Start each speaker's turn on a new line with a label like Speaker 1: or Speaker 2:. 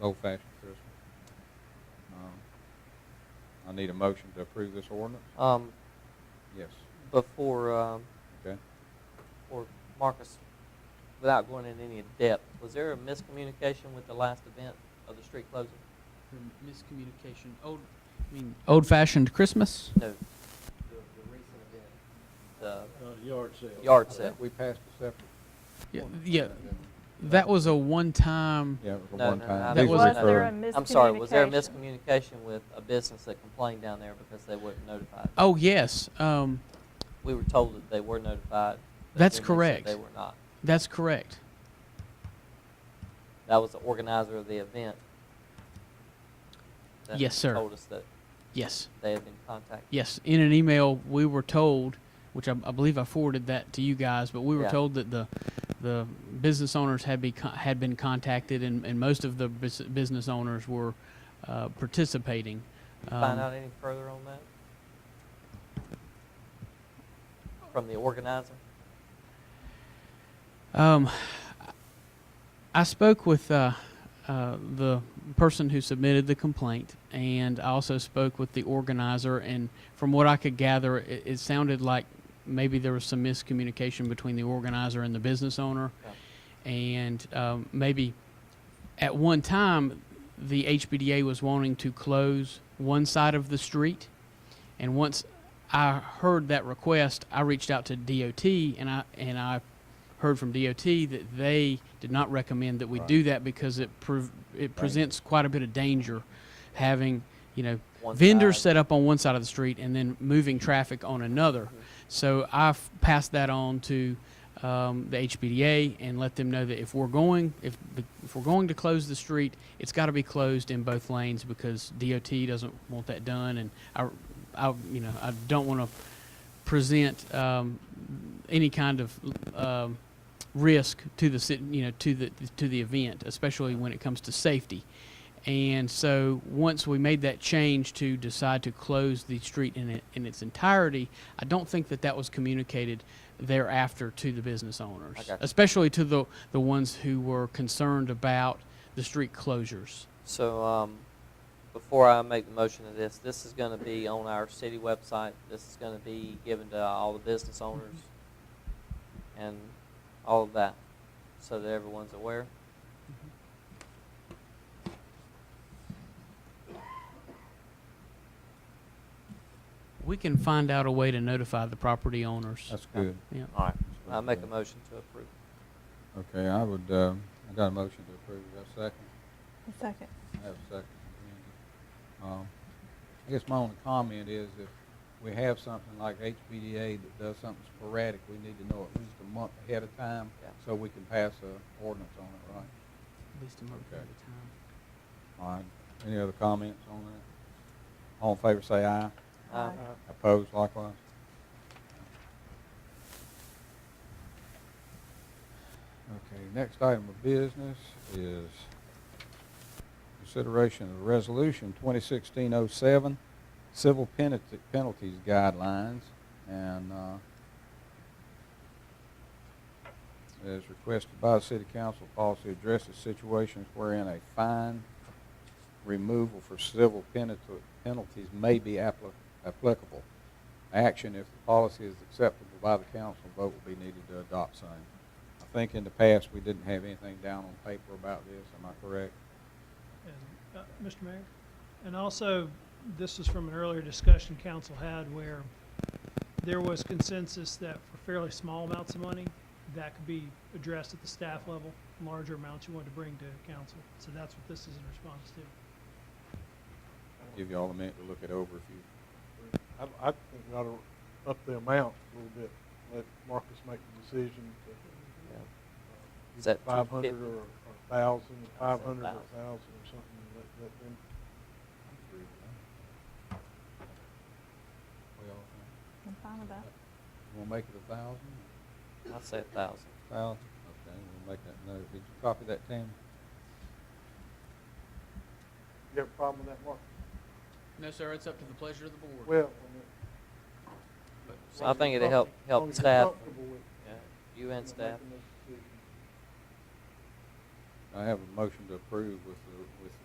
Speaker 1: Old fashioned Christmas. Um, I need a motion to approve this ordinance?
Speaker 2: Um,
Speaker 1: Yes,
Speaker 2: before, um,
Speaker 1: okay.
Speaker 2: or Marcus, without going into any depth, was there a miscommunication with the last event of the street closing?
Speaker 3: for miscommunication. Old, I mean, old-fashioned Christmas.
Speaker 2: No. The, the recent event.
Speaker 4: uh, yard sale.
Speaker 2: The yard
Speaker 1: So
Speaker 2: sale.
Speaker 1: we passed a separate,
Speaker 3: Yeah, yeah, that was a one-time.
Speaker 1: yeah, it was a
Speaker 2: No,
Speaker 1: one
Speaker 2: no,
Speaker 1: time.
Speaker 2: no,
Speaker 1: These
Speaker 2: no.
Speaker 1: are
Speaker 2: Was there
Speaker 1: recurring.
Speaker 2: I'm sorry, was there a miscommunication with a business that complained down there because they weren't notified?
Speaker 3: Oh yes, um,
Speaker 2: We were told that they were notified. but
Speaker 3: That's
Speaker 2: then they said
Speaker 3: correct.
Speaker 2: They were not.
Speaker 3: that's correct.
Speaker 2: That was the organizer of the event. that
Speaker 3: Yes, sir.
Speaker 2: Told us that
Speaker 3: Yes,
Speaker 2: they had been contacted.
Speaker 3: yes. In an email, we were told, which I, I believe I forwarded that to you guys, but we were
Speaker 2: Yeah.
Speaker 3: told that the the business owners had be con- had been contacted, and, and most of the bus- business owners were uh, participating. Um,
Speaker 2: Did you find out any further on that? From the organizer?
Speaker 3: Um, I spoke with uh, uh, the person who submitted the complaint, and I also spoke with the organizer. And from what I could gather, it, it sounded like maybe there was some miscommunication between the organizer and the business owner, and um, maybe at one time the HBDA was wanting to close one side of the street, and once I heard that request, I reached out to DOT, and I and I heard from DOT that they did not recommend that we
Speaker 1: Right.
Speaker 3: do that because it prov- it presents quite a bit of danger having you know
Speaker 2: One
Speaker 3: vendors
Speaker 2: side.
Speaker 3: set up on one side of the street and then moving traffic on another.
Speaker 2: Mm-hmm.
Speaker 3: So I've passed that on to um, the HBDA and let them know that if we're going if the, if we're going to close the street, it's got to be closed in both lanes because DOT doesn't want that done, and I, I you know I don't want to present um, any kind of um, risk to the cit- you know to the to the event, especially when it comes to safety. And so once we made that change to decide to close the street in it, in its entirety, I don't think that that was communicated thereafter to the business owners,
Speaker 2: I got you.
Speaker 3: especially to the the ones who were concerned about the street closures.
Speaker 2: So, um, before I make the motion of this, this is gonna be on our city website. This is gonna be given to all the business owners and all of that, so that everyone's aware.
Speaker 3: We can find out a way to notify the property owners.
Speaker 1: That's good.
Speaker 3: yeah.
Speaker 2: All right.
Speaker 1: That's
Speaker 2: I make a
Speaker 1: good.
Speaker 2: motion to approve.
Speaker 1: Okay, I would, uh, I got a motion to approve. Is that second?
Speaker 5: Second.
Speaker 1: I have a second. Um, I guess my only comment is if we have something like HPDA that does something sporadic, we need to know at least a month ahead of time
Speaker 2: Yeah.
Speaker 1: so we can pass a ordinance on it, right?
Speaker 3: At least a month
Speaker 1: Okay.
Speaker 3: at a time.
Speaker 1: All right, any other comments on that? All in favor, say aye.
Speaker 2: Uh,
Speaker 5: Aye.
Speaker 1: Opposed likewise? Okay, next item of business is consideration of resolution 2016-07, civil penalty- penalties guidelines, and uh, is requested by the city council policy addresses situations wherein a fine removal for civil penalti- penalties may be appli- applicable. Action, if the policy is acceptable by the council, vote will be needed to adopt same. I think in the past, we didn't have anything down on paper about this, am I correct?
Speaker 6: And, uh, Mr. Mayor, and also, this is from an earlier discussion council had where there was consensus that for fairly small amounts of money, that could be addressed at the staff level, larger amounts you want to bring to council. So that's what this is in response to.
Speaker 1: Give you all a minute to look it over if you,
Speaker 4: I, I think we ought to up the amount a little bit, let Marcus make the decision
Speaker 2: yeah. Is
Speaker 4: to
Speaker 2: that
Speaker 4: five hundred
Speaker 2: 250?
Speaker 4: or a thousand,
Speaker 2: I said
Speaker 4: five hundred or
Speaker 2: thousand.
Speaker 4: a thousand or something, and let, let them.
Speaker 1: we all,
Speaker 5: I'm fine with that.
Speaker 1: we'll make it a thousand,
Speaker 2: I'll say a thousand.
Speaker 1: thousand, okay, we'll make that note. Did you copy that, Tammy?
Speaker 4: You have a problem with that, Marcus?
Speaker 3: No, sir, it's up to the pleasure of the board.
Speaker 4: Well. I mean,
Speaker 2: So I think it'll help,
Speaker 4: as long
Speaker 2: help
Speaker 4: as you're
Speaker 2: staff,
Speaker 4: comfortable with
Speaker 2: yeah, you and
Speaker 4: making
Speaker 2: staff.
Speaker 4: those decisions.
Speaker 1: I have a motion to approve with the, with the